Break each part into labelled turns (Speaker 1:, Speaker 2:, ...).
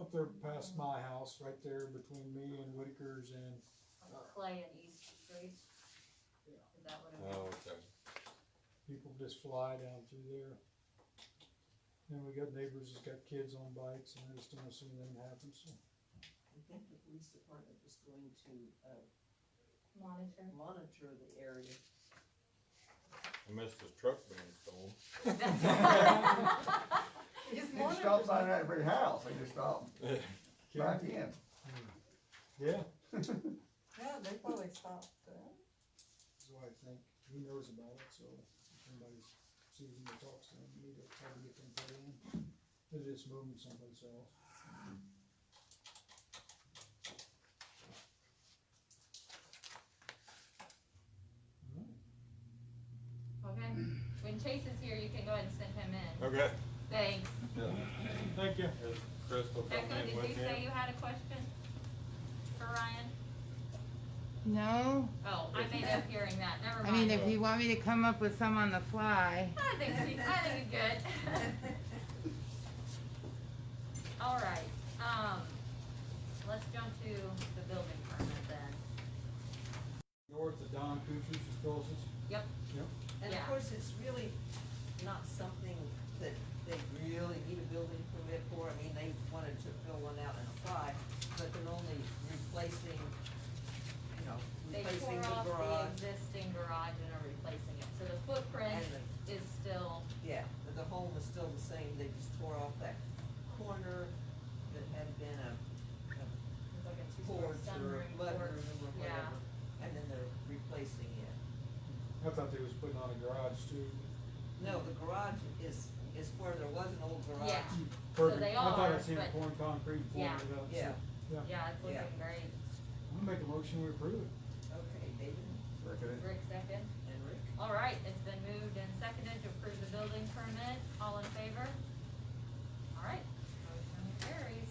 Speaker 1: up there past my house, right there between me and Whitaker's and,
Speaker 2: on Clay and East Street? Is that what it
Speaker 3: Oh,
Speaker 2: is?
Speaker 3: okay.
Speaker 1: people just fly down through there. And we got neighbors that's got kids on bikes and I just don't assume anything happens, so.
Speaker 4: I think the police department is going to, uh,
Speaker 2: Monitor?
Speaker 4: monitor the area.
Speaker 3: I missed his truck being stolen.
Speaker 5: He just stops on that every house, they just stop,
Speaker 1: Yeah,
Speaker 5: back in.
Speaker 1: yeah,
Speaker 4: Yeah, they probably stopped, uh,
Speaker 1: so I think he knows about it, so if somebody sees him or talks to him, we need to try to get them put in. They're just moving someplace else.
Speaker 2: Okay, when Chase is here, you can go ahead and send him in.
Speaker 3: Okay.
Speaker 2: Thanks.
Speaker 1: Thank you.
Speaker 3: Is Crystal
Speaker 2: Echo,
Speaker 3: coming in
Speaker 2: did you
Speaker 3: with
Speaker 2: say
Speaker 3: him?
Speaker 2: you had a question for Ryan?
Speaker 6: No,
Speaker 2: Oh, I made up hearing that, never
Speaker 6: I mean,
Speaker 2: mind.
Speaker 6: if you want me to come up with some on the fly.
Speaker 2: I think, we- I think we good. All right, um, let's jump to the building permit then.
Speaker 1: North of Don Kuchar's, is closest.
Speaker 2: Yep.
Speaker 1: Yep.
Speaker 4: And
Speaker 2: Yeah.
Speaker 4: of course, it's really not something that they really need a building permit for, I mean, they wanted to fill one out and apply, but they're only replacing, you know,
Speaker 2: They tore
Speaker 4: replacing the
Speaker 2: off the
Speaker 4: garage
Speaker 2: existing garage and are replacing it, so the
Speaker 4: and
Speaker 2: footprint
Speaker 4: the,
Speaker 2: is still,
Speaker 4: yeah, but the home is still the same, they just tore off that corner that had been a
Speaker 2: it's like a two-story
Speaker 4: porch or
Speaker 2: sunroom
Speaker 4: a
Speaker 2: porch.
Speaker 4: mudroom or
Speaker 2: Yeah,
Speaker 4: whatever, and then they're replacing it.
Speaker 1: I thought they was putting on a garage too.
Speaker 4: No, the garage is, is where there was an old garage.
Speaker 2: Yeah. So
Speaker 1: Perfect.
Speaker 2: they
Speaker 1: I thought I
Speaker 2: are,
Speaker 1: seen
Speaker 2: but-
Speaker 1: pouring concrete and pouring
Speaker 2: Yeah.
Speaker 1: it up. so-
Speaker 4: Yeah,
Speaker 2: yeah, it's
Speaker 4: Yeah.
Speaker 2: looking great.
Speaker 1: I'm gonna make a motion, we approve it.
Speaker 4: okay, David
Speaker 2: Rick second.
Speaker 4: and Rick.
Speaker 2: All right, it's been moved and seconded to approve the building permit. All in favor? All right, motion carries.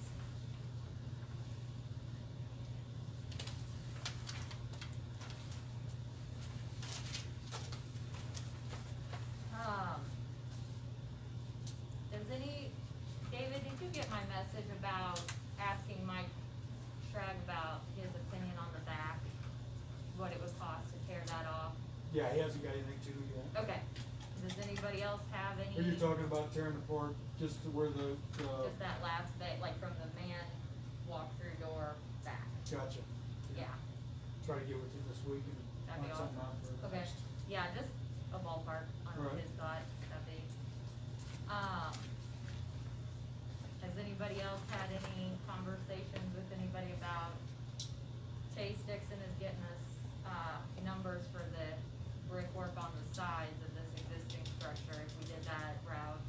Speaker 2: Um, does any, David, did you get my message about asking Mike Shrag about his opinion on the back? What it would cost to tear that off?
Speaker 1: Yeah, he hasn't got anything to do yet.
Speaker 2: Okay, does anybody else have any?
Speaker 1: Are you talking about tearing apart just to where the, the,
Speaker 2: Just that last bit, like from the man walk-through door back,
Speaker 1: gotcha,
Speaker 2: yeah,
Speaker 1: try to get with him this week and
Speaker 2: That'd be
Speaker 1: find something out for
Speaker 2: okay,
Speaker 1: next.
Speaker 2: yeah, just a ballpark on what
Speaker 1: Right.
Speaker 2: his thoughts, that'd be. Um, has anybody else had any conversations with anybody about Chase Dixon is getting us, uh, numbers for the brickwork on the sides of this existing structure, if we did that route,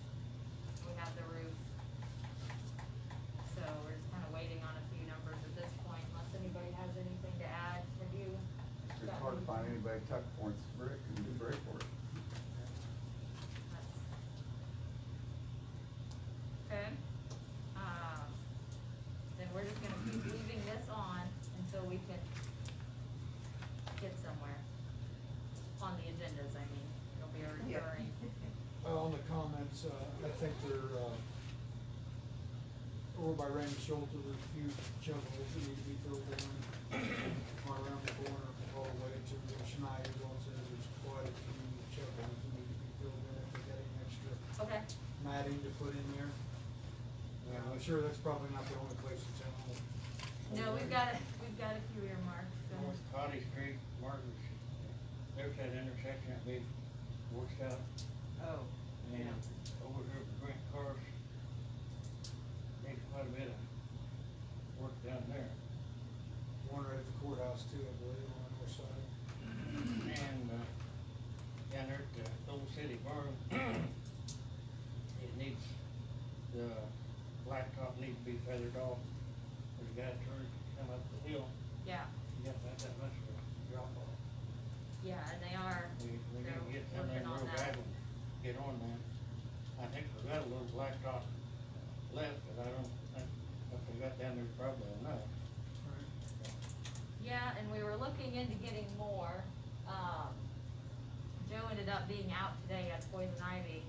Speaker 2: we have the roof. So we're just kinda waiting on a few numbers at this point, unless anybody has anything to add, have you?
Speaker 5: It's hard to find anybody tuck points brick and do brick work.
Speaker 2: Okay, um, then we're just gonna keep leaving this on until we can get somewhere. On the agendas, I mean, it'll be a
Speaker 4: Yeah.
Speaker 2: recurring,
Speaker 1: Uh, on the comments, uh, I think they're, uh, over by Randy Schulte, there's a few chunk holes that need to be filled in. Or around the corner, all the way to where Schneider goes in, there's quite a few chunk holes that need to be filled in, if they got any extra
Speaker 2: okay,
Speaker 1: matting to put in there. Uh, I'm sure that's probably not the only place in town. that-
Speaker 2: no, we've got, a we've got a few earmarks, so,
Speaker 7: North Cotty Street, Martin, there's that intersection that we worked out,
Speaker 4: Oh,
Speaker 7: and over here, at Grant Cars, there's quite a bit of work down there.
Speaker 1: One right at the courthouse too, I believe, on the north side.
Speaker 7: And, uh, down there at the Old City Barn, it needs, the blacktop needs to be feathered off. There's a guy turned, come up the hill,
Speaker 2: yeah,
Speaker 7: you got about that much of a drop off.
Speaker 2: yeah, and they are,
Speaker 7: We, we need to get some of
Speaker 2: Working
Speaker 7: them
Speaker 2: on
Speaker 7: real
Speaker 2: that.
Speaker 7: bad ones, get on them. I think we got a little blacktop left, but I don't think, if we got down there probably enough.
Speaker 2: Yeah, and we were looking into getting more. Um, Joe ended up being out today at Poison Ivy uh,